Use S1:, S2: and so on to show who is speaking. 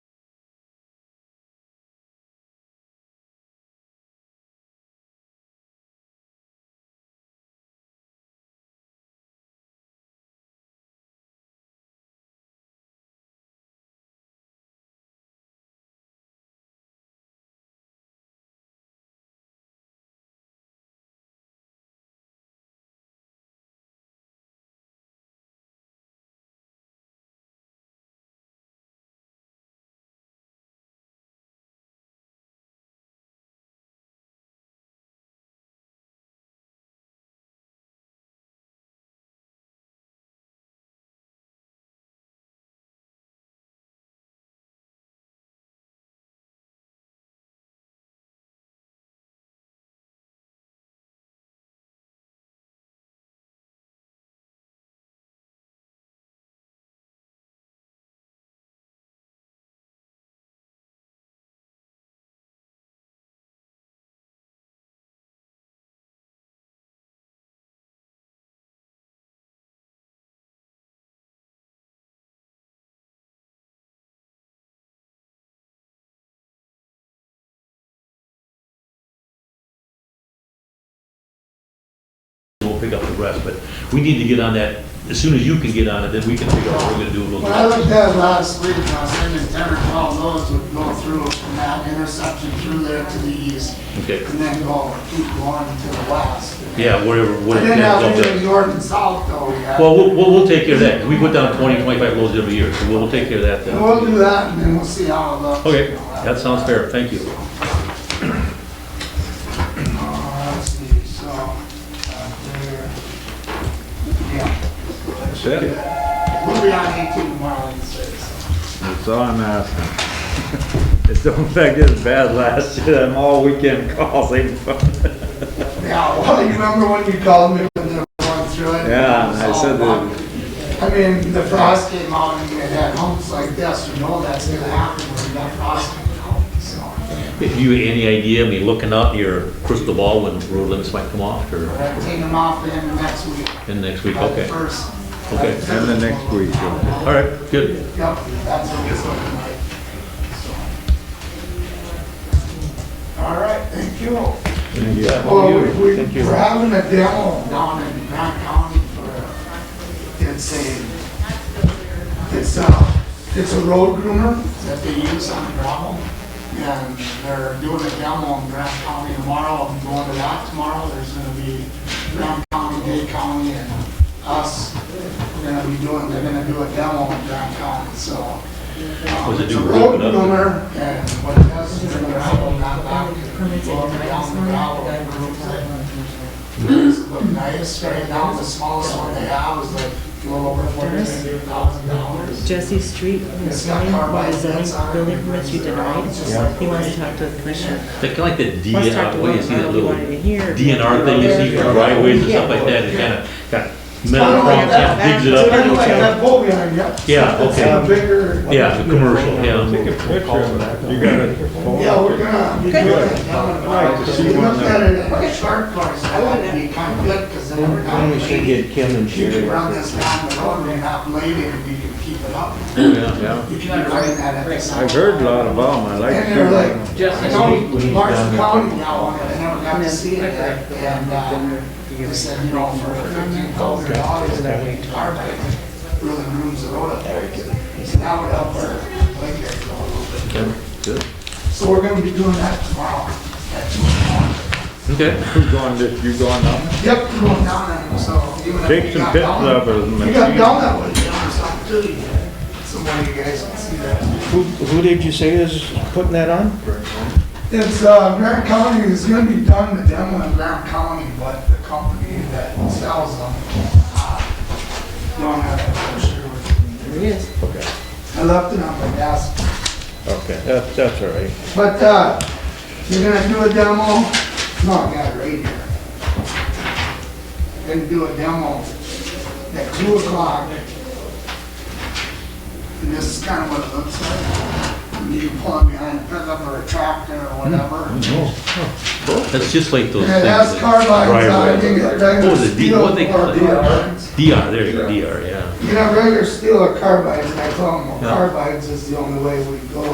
S1: pick up the rest, but we need to get on that, as soon as you can get on it, then we can figure out what we're gonna do.
S2: When I looked at it last week, I was thinking ten or twelve of those would go through from that intersection through there to the east.
S1: Okay.
S2: And then go, keep going to the west.
S1: Yeah, whatever,
S2: I
S1: whatever.
S2: didn't
S1: yeah,
S2: have
S1: don't do
S2: any
S1: it.
S2: of York and South though, we had.
S1: Well, we'll, we'll, we'll take care of that, 'cause we put down 20, 25 loads every year, so we'll, we'll take care of that
S2: And we'll
S1: then.
S2: do that and then we'll see how it looks.
S1: Okay, that sounds fair, thank you.
S2: Uh, let's see, so, uh, there, yeah. We'll be on eighteen tomorrow, I'd say, so.
S3: That's all I'm asking. It don't affect this bad last year, them all weekend calls ain't fun.
S2: Yeah, well, you remember when you called me when they were going through it? uh,
S3: Yeah, and I said that-
S2: I mean, the frost came out and it had humps like this, you know that's gonna happen when that frost comes out, so.
S1: If you, any idea, I mean, looking up your crystal ball when road limits might come off,
S2: We're
S1: or
S2: gonna take them off the end of next week.
S1: in next week,
S2: by the
S1: okay.
S2: First.
S1: Okay.
S3: And the next week, yeah.
S1: All right, good.
S2: Yep, that's what it's looking like. so. All right, thank you.
S3: Thank you.
S2: Well, we- we- we're having a demo down in Grant County for, it's a, it's a, it's a road groomer that they use on gravel. And they're doing a demo in Grant County tomorrow, I'm going to that tomorrow, there's gonna be Grant County, Day County, and us. We're gonna be doing, they're gonna do a demo in Grant County, so. um,
S1: Was it
S2: it's a
S1: do road
S2: road
S1: up?
S2: groomer, and what it does is they're gonna help them out back, go down the gravel, and groups it. It's look nice right now, the smallest one they have is like a little over forty-two thousand dollars.
S4: Jesse Street, was zoning building permits you denied. He wants to talk to the commissioner.
S1: They kind of like that
S4: Wants to talk
S1: DNR, what
S4: to
S1: do
S4: Will
S1: you oh, see, that
S4: Brown, he
S1: little
S4: wanted to hear.
S1: DNR thing you see for driveways and stuff like that, it kind of got metal
S2: Kinda like
S1: prongs,
S2: that.
S1: yeah, digs it
S2: It's
S1: up.
S2: kind of like that boat behind you.
S1: Yeah,
S2: It's
S1: okay.
S2: a bigger.
S1: Yeah, the commercial,
S3: Take a
S1: yeah.
S3: picture of it. You got a phone?
S2: Yeah, we're gonna be doing it down in the
S3: Right, to see
S2: We
S3: one
S2: looked at it at the shark cars, that would be kind of good, because then every time
S5: Then we should
S2: you
S5: get Kim and
S2: can
S5: Sherry.
S2: run this down the road and have lady and you can keep it up.
S3: Yeah.
S2: You can run that at the side.
S3: I've heard a lot about them, I like
S2: And they're
S3: to
S2: like,
S5: Just
S2: I
S5: this
S2: know
S5: week we need
S2: Marshall
S5: down there.
S2: County now, on it, I never got to see it, and, uh, they said, you know, for fifteen thousand dollars, that we carbide really grooms the road up there. So that would help our lake area go a little bit.
S1: Good.
S2: So we're gonna be doing that tomorrow. at two o'clock.
S1: Okay.
S3: Who's going this, you going up?
S2: Yep, we're going down there, so. even if
S3: Take
S2: you
S3: some
S2: got
S3: pictures
S2: down-
S3: of it, and
S2: You got
S3: see.
S2: down that way, down or something, too. Somebody you guys can see that.
S5: Who, who did you say is putting that on?
S2: It's, uh, Grant County is gonna be done, the demo in Grant County, but the company that sells them, uh, don't have that brochure with
S4: There he is.
S2: me. I left it on my desk.
S5: Okay, that's, that's all right.
S2: But, uh, you're gonna do a demo? No, I got it right here. Gonna do a demo at two o'clock. And this is kinda what it looks like. You can pull it behind a pickup or a tractor or whatever.
S1: That's just like those
S2: And
S1: things.
S2: it has
S1: that-
S2: carbines on it,
S1: driveway.
S2: you can get regular
S1: What was it, D-
S2: steel
S1: what
S2: or
S1: they call it?
S2: carbines.
S1: DR, there you go, DR, yeah.
S2: You can have regular steel or carbines, and I told them, well,
S1: Yeah.
S2: carbines is the only way we go